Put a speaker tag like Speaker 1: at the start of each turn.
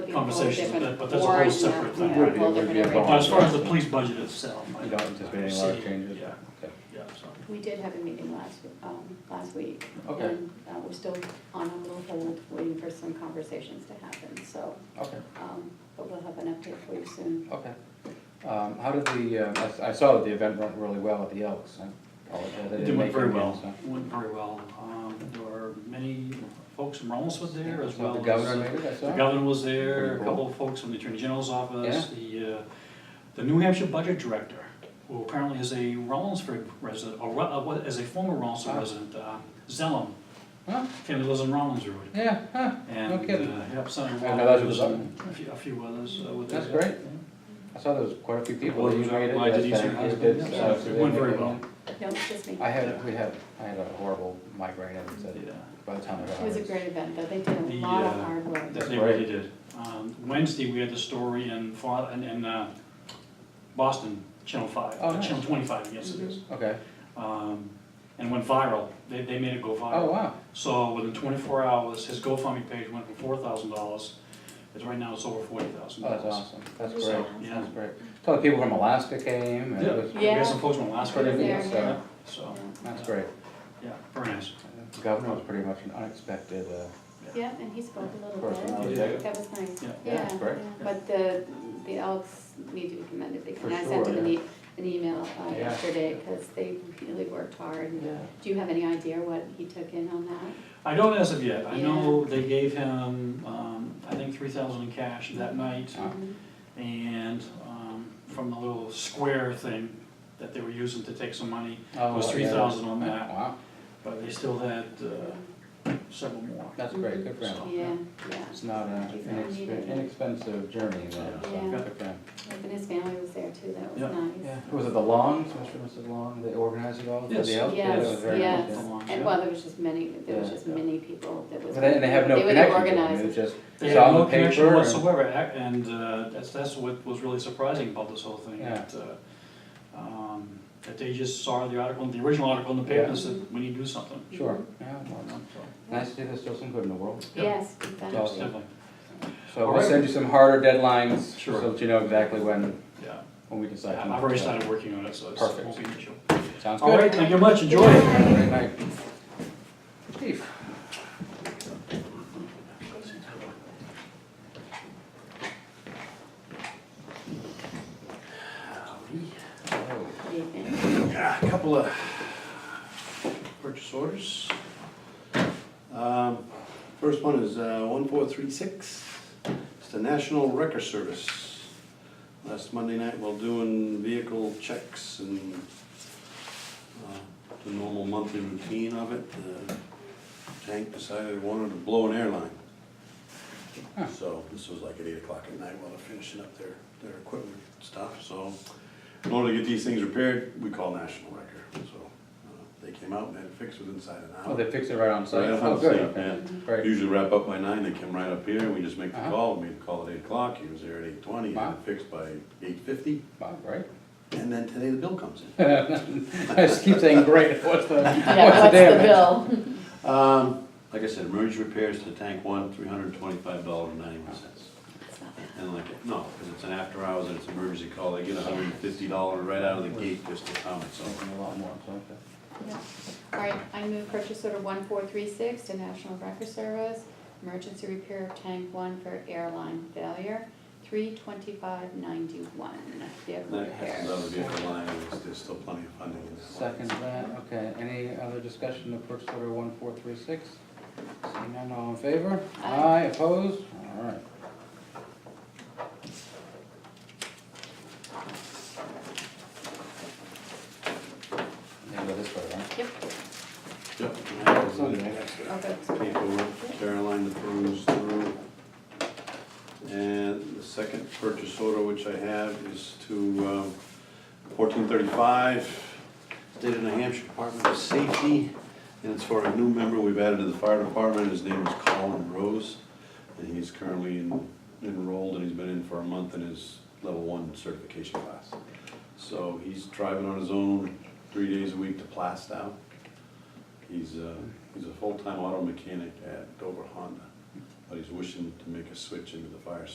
Speaker 1: you know, whole
Speaker 2: conversations,
Speaker 1: different
Speaker 2: but but that's a whole
Speaker 1: warrant,
Speaker 2: separate
Speaker 1: yeah,
Speaker 2: thing.
Speaker 1: whole
Speaker 3: Would be- would
Speaker 1: different
Speaker 3: be a
Speaker 1: arrangement.
Speaker 2: But as far as the police budget itself. I
Speaker 3: You don't anticipate any large
Speaker 2: see-
Speaker 3: changes?
Speaker 2: Yeah,
Speaker 3: Okay.
Speaker 2: yeah, so.
Speaker 1: We did have a meeting last, um, last week.
Speaker 3: Okay.
Speaker 1: And, uh, we're still on a little hold, waiting for some conversations to happen, so,
Speaker 3: Okay,
Speaker 1: um, but we'll have an update for you soon.
Speaker 3: okay. Um, how did the, uh, I s- I saw that the event went really well at the Elks, I apologize, I didn't make it.
Speaker 2: It went very
Speaker 3: again,
Speaker 2: well,
Speaker 3: so-
Speaker 2: went very well. Um, There were many folks from Rollis was there as
Speaker 3: So
Speaker 2: well.
Speaker 3: The
Speaker 2: as-
Speaker 3: governor maybe, I saw?
Speaker 2: The governor was there, a
Speaker 3: Pretty cool.
Speaker 2: couple of folks from the Attorney General's office, the, uh, the New Hampshire Budget Director, who apparently is a Rollinsford resident, or ru- uh, what- is a former Rollinsford
Speaker 3: Ah.
Speaker 2: resident, uh, Zellum,
Speaker 3: Huh?
Speaker 2: family lives in Rollinsford.
Speaker 3: Yeah, huh,
Speaker 2: And, uh,
Speaker 3: kidding.
Speaker 2: yep, Senator
Speaker 3: I know that's
Speaker 2: Walters
Speaker 3: what
Speaker 2: and a few, a few others uh, were there.
Speaker 3: That's
Speaker 2: yeah.
Speaker 3: great. I saw there was quite a few people.
Speaker 2: Well,
Speaker 3: that
Speaker 2: it was
Speaker 3: made
Speaker 2: out by
Speaker 3: yes,
Speaker 2: Denise
Speaker 3: thank
Speaker 2: and
Speaker 3: you,
Speaker 2: husband,
Speaker 3: did,
Speaker 2: yeah,
Speaker 3: uh,
Speaker 2: so it
Speaker 3: they
Speaker 2: went
Speaker 3: made
Speaker 2: very
Speaker 3: it.
Speaker 2: well.
Speaker 1: No, it's just me.
Speaker 3: I had, we had, I had a horrible migraine, and so
Speaker 2: Yeah.
Speaker 3: by the time I got
Speaker 1: It
Speaker 3: home.
Speaker 1: was a great event, though, they did a
Speaker 2: The,
Speaker 1: lot of
Speaker 2: uh,
Speaker 1: hard work.
Speaker 2: That
Speaker 3: That's
Speaker 2: they
Speaker 3: great.
Speaker 2: really did. Um, Wednesday, we had the story in, Fa- in- in uh, Boston, Channel 5,
Speaker 3: Oh,
Speaker 2: uh,
Speaker 3: nice. Mm-hmm.
Speaker 2: Channel 25, yes it is.
Speaker 3: Okay,
Speaker 2: Um, And went viral. They, they made it go
Speaker 3: oh,
Speaker 2: viral.
Speaker 3: wow,
Speaker 2: So within 24 hours, his GoFundMe page went from $4,000, it's right now it's over $40,000.
Speaker 3: oh, that's awesome, that's
Speaker 1: So,
Speaker 3: great,
Speaker 2: yeah.
Speaker 3: that's great. So the people from Alaska came, and it was,
Speaker 2: Yeah, we
Speaker 1: Yeah.
Speaker 2: got some folks from Alaska.
Speaker 3: Pretty
Speaker 2: and
Speaker 3: neat,
Speaker 2: everything,
Speaker 3: so-
Speaker 2: yeah, So,
Speaker 3: that's great.
Speaker 2: yeah, very nice.
Speaker 3: The governor was pretty much an unexpected, uh,
Speaker 1: Yeah, and he spoke a little bit.
Speaker 3: personality.
Speaker 2: Yeah.
Speaker 1: That was nice,
Speaker 2: Yeah.
Speaker 3: Yeah,
Speaker 1: yeah.
Speaker 3: great.
Speaker 1: yeah. But the, the Elks need to be commended, because
Speaker 3: For
Speaker 1: I sent
Speaker 3: sure,
Speaker 1: them an e- an email uh,
Speaker 3: Yeah.
Speaker 1: yesterday, because they really worked hard.
Speaker 3: Yeah.
Speaker 1: Do you have any idea what he took in on that?
Speaker 2: I don't as of yet. I know they gave him, um, I think, 3000 in cash that night.
Speaker 3: Uh.
Speaker 1: Mhm.
Speaker 2: And um, from the little square thing that they were using to take some money,
Speaker 3: Oh,
Speaker 2: was
Speaker 3: yeah.
Speaker 2: 3,000 on that.
Speaker 3: Wow,
Speaker 2: but they still had uh, several more.
Speaker 3: that's great, good for
Speaker 2: So-
Speaker 3: him.
Speaker 1: Yeah, yeah.
Speaker 3: It's not uh, an
Speaker 1: He's not needed.
Speaker 3: inexpe- inexpensive journey, though, so
Speaker 1: Yeah.
Speaker 3: good for him.
Speaker 1: Like, And his family was there too, that was
Speaker 2: Yeah.
Speaker 3: Yeah,
Speaker 1: nice.
Speaker 3: was it the Longs, Mr. and Mrs. Long, they organized it all? for the
Speaker 2: Yes.
Speaker 3: Elks? Yeah, that was
Speaker 1: Yes,
Speaker 3: very nice, yeah.
Speaker 1: yes,
Speaker 2: Yeah.
Speaker 1: and well, there was just many, there was
Speaker 3: Yeah.
Speaker 1: just many people that was.
Speaker 3: But they- And they have no
Speaker 1: were the
Speaker 3: connection, to them,
Speaker 1: organizers.
Speaker 3: it was just,
Speaker 2: They
Speaker 3: Saw
Speaker 2: had
Speaker 3: the
Speaker 2: no connection
Speaker 3: paper or-
Speaker 2: whatsoever, ac- and uh, that's, that's what was really surprising about this whole thing.
Speaker 3: Yeah.
Speaker 2: that, uh, um, That they just saw the article, the original article in the paper and said, we need to do something.
Speaker 3: sure, yeah, well,
Speaker 2: You know, so,
Speaker 3: nice to see there's still some good in the world.
Speaker 2: Yeah.
Speaker 1: Yes,
Speaker 3: awesome.
Speaker 1: exactly.
Speaker 2: Definitely,
Speaker 3: So
Speaker 2: All
Speaker 3: we'll
Speaker 2: right.
Speaker 3: send you some harder deadlines,
Speaker 2: Sure.
Speaker 3: so that you know exactly when,
Speaker 2: yeah.
Speaker 3: when we decide.
Speaker 2: I've already started working on it, so it's- it
Speaker 3: Perfect.
Speaker 2: won't be an issue.
Speaker 3: Sounds
Speaker 2: All
Speaker 3: good.
Speaker 2: right, thank you much, enjoy it.
Speaker 3: Have a great night. Steve. Oh.
Speaker 1: Good evening.
Speaker 2: Yeah, a couple of purchase orders.
Speaker 4: Um, First one is uh, 1436, it's the National Wrecker Service. Last Monday night, while doing vehicle checks and uh, the normal monthly routine of it, the tank decided it wanted to blow an airline.
Speaker 3: Huh.
Speaker 4: So this was like at 8 o'clock at night while they're finishing up their, their equipment stuff, so in order to get these things repaired, we call National Wrecker, so uh, they came out and had it fixed within inside an hour.
Speaker 3: Oh, they fixed it right on site?
Speaker 4: Right up
Speaker 3: Oh,
Speaker 4: on
Speaker 3: good,
Speaker 4: site,
Speaker 3: okay.
Speaker 4: yeah.
Speaker 3: Great,
Speaker 4: Usually wrap up by nine, they come right up here, and we just make the
Speaker 3: Uh-huh.
Speaker 4: call, we made the call at eight o'clock, he was there at eight twenty,
Speaker 3: Wow.
Speaker 4: and it fixed by eight fifty,
Speaker 3: wow, great.
Speaker 4: and then today the bill comes in.
Speaker 3: I just keep saying great, what's the, what's the
Speaker 1: Yeah, what's the
Speaker 3: damage?
Speaker 1: bill?
Speaker 4: Um, like I said, emergency repairs to tank one, three hundred and twenty-five dollars and ninety-one cents.
Speaker 1: It's not bad.
Speaker 4: And like, it- no, because it's an after hours and it's an emergency call, they get a hundred and fifty dollars right out of the gate just to come, so.
Speaker 3: Something a lot more, so, okay.
Speaker 1: Yeah. All right, I move purchase order one four three six to National Record Service, emergency repair of tank one for airline failure, three twenty-five ninety-one, vehicle
Speaker 4: That has
Speaker 1: repair.
Speaker 4: another vehicle line, and there's- there's still plenty of funding in that line.
Speaker 3: Second that, okay, any other discussion of purchase order one four three six? Seeing none, all in favor?
Speaker 1: Aye.
Speaker 3: opposed? All right. Yeah, go this way, right?
Speaker 1: Yep,
Speaker 4: Yep. and that was the
Speaker 3: Okay.
Speaker 4: next one.
Speaker 1: okay.
Speaker 4: paperwork Caroline to peruse through. And the second purchase order which I have is to um, fourteen thirty-five, State of New Hampshire Department of Safety. And it's for a new member we've added to the fire department, his name is Colin Rose. And he's currently en- enrolled and he's been in for a month in his level one certification class. So he's driving on his own three days a week to Plastow. He's a, he's a full-time auto mechanic at Dover Honda, but he's wishing to make a switch into the fire